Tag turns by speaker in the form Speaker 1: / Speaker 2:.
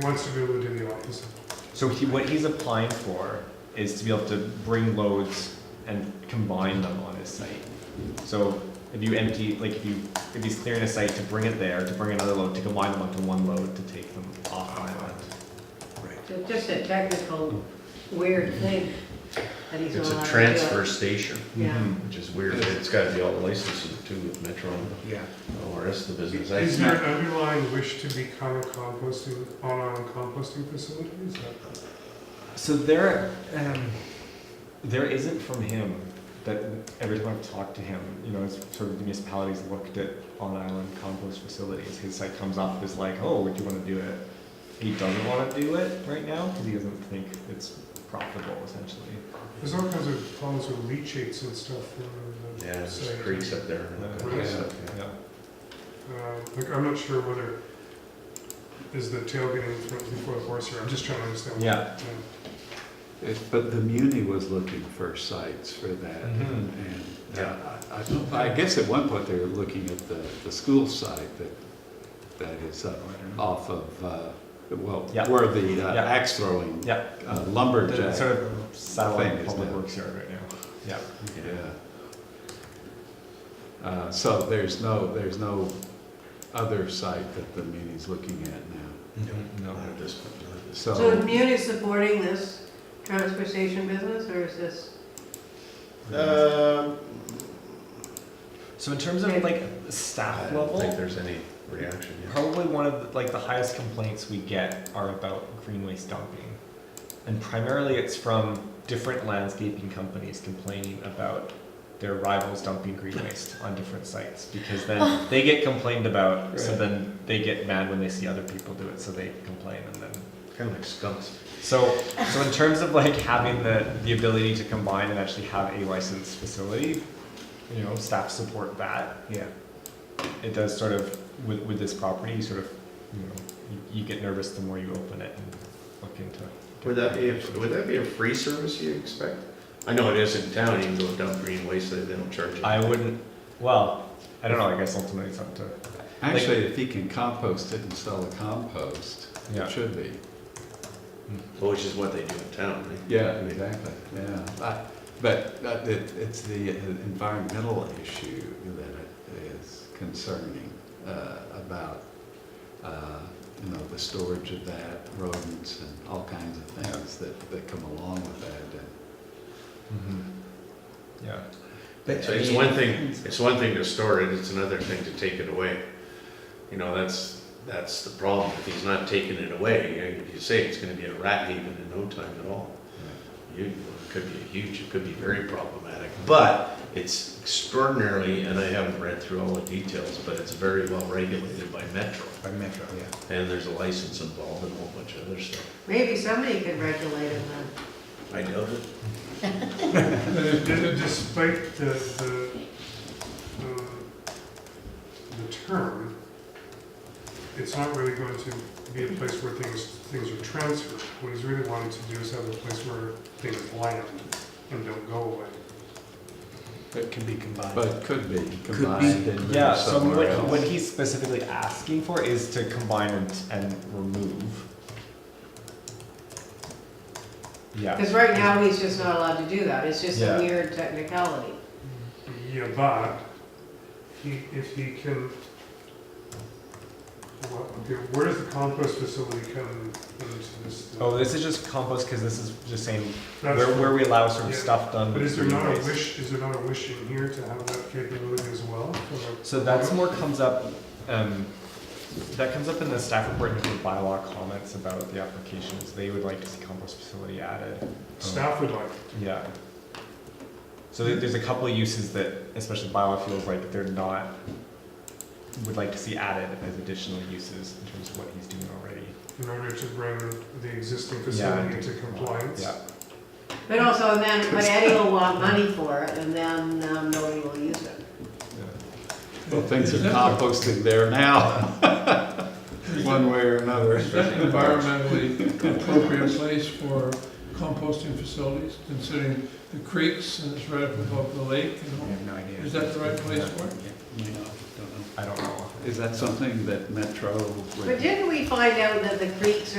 Speaker 1: He wants to be able to do the opposite.
Speaker 2: So he, what he's applying for is to be able to bring loads and combine them on his site. So if you empty, like if you, if he's clearing a site to bring it there, to bring another load, to combine them onto one load to take them off island.
Speaker 3: It's just a technical weird thing that he's not
Speaker 4: It's
Speaker 3: allowed
Speaker 4: a
Speaker 3: to do.
Speaker 4: transfer Mm-hmm. station,
Speaker 3: Yeah.
Speaker 2: Mhm.
Speaker 4: which is weird. It's gotta be all the licenses too with Metro and
Speaker 5: Yeah,
Speaker 4: all the rest of the
Speaker 1: Is
Speaker 4: business. That's-
Speaker 1: there an underlying wish to become a composting, on-on composting facility? Is that-
Speaker 2: So there, um, there isn't from him that every time I've talked to him, you know, it's sort of the municipalities looked at on island compost facilities. His site comes up as like, oh, would you want to do it? He doesn't want to do it right now because he doesn't think it's profitable, essentially.
Speaker 1: There's all kinds of problems with leachates and stuff. in the
Speaker 4: Yeah, there's
Speaker 1: site.
Speaker 4: creeks up there. and all kinds of stuff, yeah.
Speaker 2: Yeah.
Speaker 1: Uh, Like, I'm not sure whether, is the tailgating in front before the horse here? I'm just trying to understand.
Speaker 2: Yeah.
Speaker 5: It- but the Muni was looking for sites for that.
Speaker 2: Mhm.
Speaker 5: And
Speaker 4: Yeah.
Speaker 5: I- I, I guess at one point they were looking at the, the school site that, that is up off of, uh, well,
Speaker 2: Mm-hmm. Yeah.
Speaker 5: where the uh,
Speaker 2: Yeah.
Speaker 5: axe throwing
Speaker 2: Yeah.
Speaker 5: uh,
Speaker 2: The
Speaker 5: lumberjack.
Speaker 2: sort of satellite
Speaker 5: is
Speaker 2: public
Speaker 5: now-
Speaker 2: works yard right now. Yeah.
Speaker 5: Yeah. Uh, So there's no, there's no other site that the Muni's looking at now.
Speaker 2: No.
Speaker 4: Not at this point, not at this-
Speaker 3: So is
Speaker 5: So,
Speaker 3: Muni supporting this transfer station business, or is this,
Speaker 4: Um,
Speaker 2: So in terms of like
Speaker 4: I
Speaker 2: staff
Speaker 4: don't
Speaker 2: level,
Speaker 4: think there's any reaction yet.
Speaker 2: Probably one of the, like the highest complaints we get are about green waste dumping, and primarily it's from different landscaping companies complaining about their rivals dumping green waste on different sites because then they get complained about, so
Speaker 4: Right.
Speaker 2: then they get mad when they see other people do it, so they complain and then
Speaker 4: Kind of like skunks.
Speaker 2: so, so in terms of like having the, the ability to combine and actually have a licensed facility, you know, staff support that. Yeah. It does sort of, with, with this property, you sort of, you know, you, you get nervous the more you open it and look into.
Speaker 4: Would that be, a- would that be a free service you expect? I know it is in town, you can go dump green waste, they don't charge you.
Speaker 2: I wouldn't, well, I don't know, I guess ultimately it's up to,
Speaker 5: actually, if he can compost it and sell the compost,
Speaker 2: yeah.
Speaker 5: it should be.
Speaker 4: Well, Which is what they do in town. they-
Speaker 5: Yeah, exactly, yeah. I- But uh, it, it's the environmental issue that is concerning uh, about, uh, you know, the storage of that, rodents and all kinds of things that, that come along with that.
Speaker 2: Mhm. Yeah.
Speaker 4: It's it's one thing, it's one thing to store it, it's another thing to take it away. You know, that's, that's the problem. If he's not taking it away, you know, you say it's gonna be a rat haven in no time at all. You, it could be huge, it could be very problematic, but it's extraordinarily, and I haven't read through all the details, but it's very well regulated by Metro.
Speaker 2: By Metro, yeah.
Speaker 4: And there's a license involved and a whole bunch of other stuff.
Speaker 3: maybe somebody could regulate it then?
Speaker 4: I doubt it.
Speaker 1: Uh, d- Despite the, the, uh, the term, it's not really going to be a place where things, things are transferred. What he's really wanting to do is have a place where things land and don't go away.
Speaker 6: That can be combined.
Speaker 5: But could be combined and moved
Speaker 2: Yeah, so
Speaker 5: somewhere
Speaker 2: what, what
Speaker 5: else.
Speaker 2: he's specifically asking for is to combine and, and remove. Yeah,
Speaker 3: Because right now, he's just not allowed to do that, it's just a
Speaker 2: Yeah.
Speaker 3: weird technicality.
Speaker 1: Yeah, but he, if he can, well, okay, where does the compost facility come into this?
Speaker 2: oh, this is just compost, cause this is just saying,
Speaker 1: That's-
Speaker 2: where, where we allow sort of
Speaker 1: Yeah.
Speaker 2: stuff done.
Speaker 1: But is there
Speaker 2: with
Speaker 1: not a
Speaker 2: waste.
Speaker 1: wish, is there not a wish in here to have that capability as well? Or-
Speaker 2: So that's more comes up, um, that comes up in the staff report and the bylaw comments about the applications, they would like to see compost facility added.
Speaker 1: Staff would like,
Speaker 2: Yeah. So there- there's a couple of uses that, especially biofuels, like they're not, would like to see added as additional uses in terms of what he's doing already.
Speaker 1: in order to bring the existing
Speaker 2: Yeah,
Speaker 1: facility into compliance.
Speaker 2: Yeah,
Speaker 3: But also then, but Eddie will want money for it, and then um, nobody will use it.
Speaker 2: yeah.
Speaker 5: Well, things are composted there now, one way or another.
Speaker 7: environmentally appropriate place for composting facilities, considering the creeks and it's right up above the lake, you know?
Speaker 6: have no idea.
Speaker 7: Is that the right place for it?
Speaker 5: You know, don't know.
Speaker 2: I don't know.
Speaker 5: Is that something that Metro would?
Speaker 3: But didn't we find out that the creeks are